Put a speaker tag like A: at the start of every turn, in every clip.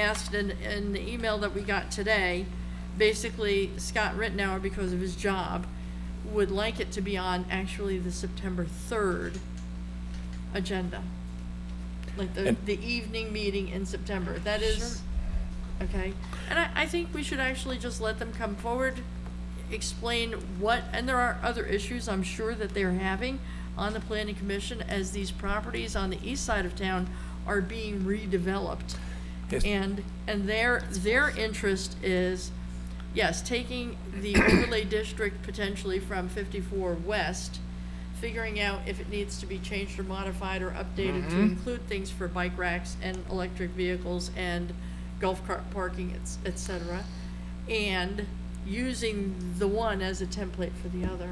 A: asked in, in the email that we got today, basically Scott Rittenhour, because of his job, would like it to be on actually the September third agenda. Like the,
B: And-
A: the evening meeting in September, that is, okay? And I, I think we should actually just let them come forward, explain what, and there are other issues I'm sure that they're having on the planning commission as these properties on the east side of town are being redeveloped.
B: Yes.
A: And, and their, their interest is, yes, taking the overlay district potentially from fifty-four west, figuring out if it needs to be changed or modified or updated to include things for bike racks and electric vehicles and golf cart parking, et, et cetera. And using the one as a template for the other.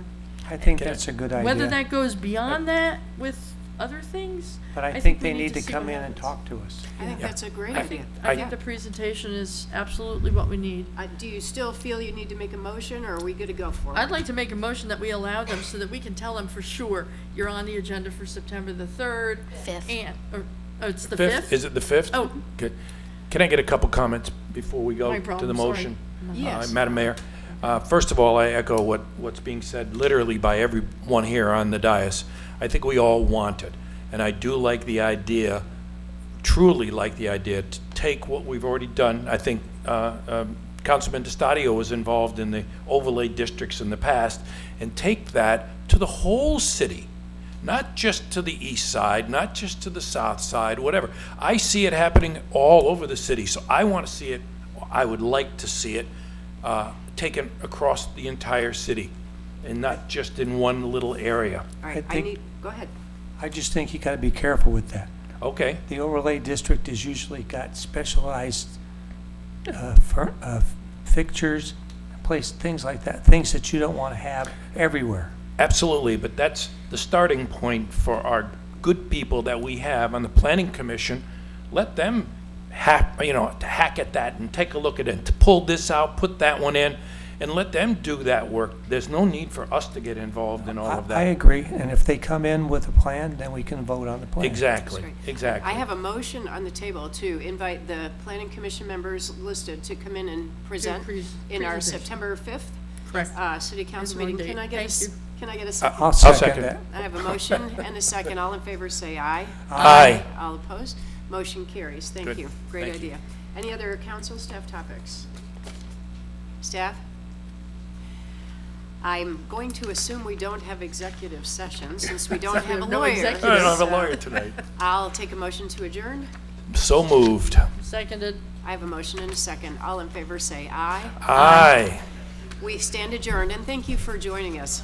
C: I think that's a good idea.
A: Whether that goes beyond that with other things,
C: But I
A: I
C: think
A: think we
C: they
A: need
C: need
A: to
C: to
A: see
C: come
A: what
C: in and
A: happens.
C: talk to us.
D: I think
B: Yeah.
D: that's a great
A: I
D: idea.
A: think, I
B: I-
A: think the presentation is absolutely what we need.
D: Uh, Do you still feel you need to make a motion, or are we good to go for it?
A: I'd like to make a motion that we allow them so that we can tell them for sure, you're on the agenda for September the third.
E: Fifth.
A: And, or, oh, it's the
B: Fifth, is
A: fifth?
B: it the fifth?
A: Oh.
B: Good. Can I get a couple comments before we
A: No
B: go to the
A: problem, sorry. Uh-huh.
B: motion? Uh,
D: Yes.
B: Madam Mayor, uh, first of all, I echo what, what's being said literally by everyone here on the dais. I think we all want it, and I do like the idea, truly like the idea, to take what we've already done. I think uh, um, Councilman DiStadio was involved in the overlay districts in the past, and take that to the whole city, not just to the east side, not just to the south side, whatever. I see it happening all over the city, so I want to see it, I would like to see it uh, taken across the entire city and not just in one little area.
D: All
C: I
D: right, I
C: think-
D: need, go ahead.
C: I just think you gotta be careful with that.
B: Okay,
C: The overlay district has usually got specialized uh, fur- uh, fixtures, place, things like that, things that you don't wanna have everywhere.
B: absolutely, but that's the starting point for our good people that we have on the planning commission. Let them hack, you know, to hack at that and take a look at it, to pull this out, put that one in, and let them do that work. There's no need for us to get involved in all
C: I
B: of
C: I
B: that.
C: agree, and if they come in with a plan, then we can vote on the plan.
B: Exactly,
D: That's great.
B: exactly.
D: I have a motion on the table to invite the planning commission members listed to come in and present
A: pres-
D: in our
A: presentation.
D: September 5th
A: Correct.
D: uh, city council
A: wrong
D: meeting.
A: date.
D: Can I get a,
A: Thank
D: s-
A: you.
D: can I get a
C: I'll
D: second?
B: second.
C: second that.
D: I have a motion and a second. All in favor, say aye.
B: Aye.
D: All opposed? Motion carries.
B: Good.
D: Thank you. Great
B: Thank you.
D: idea. Any other council staff topics? Staff? I'm going to assume we don't have executive session since we don't have a
A: No
D: lawyer.
A: executives.
B: I don't have
D: So
B: a lawyer tonight.
D: I'll take a motion to adjourn.
B: So moved.
A: Seconded.
D: I have a motion and a second. All in favor, say aye.
B: Aye.
D: We stand adjourned, and thank you for joining us.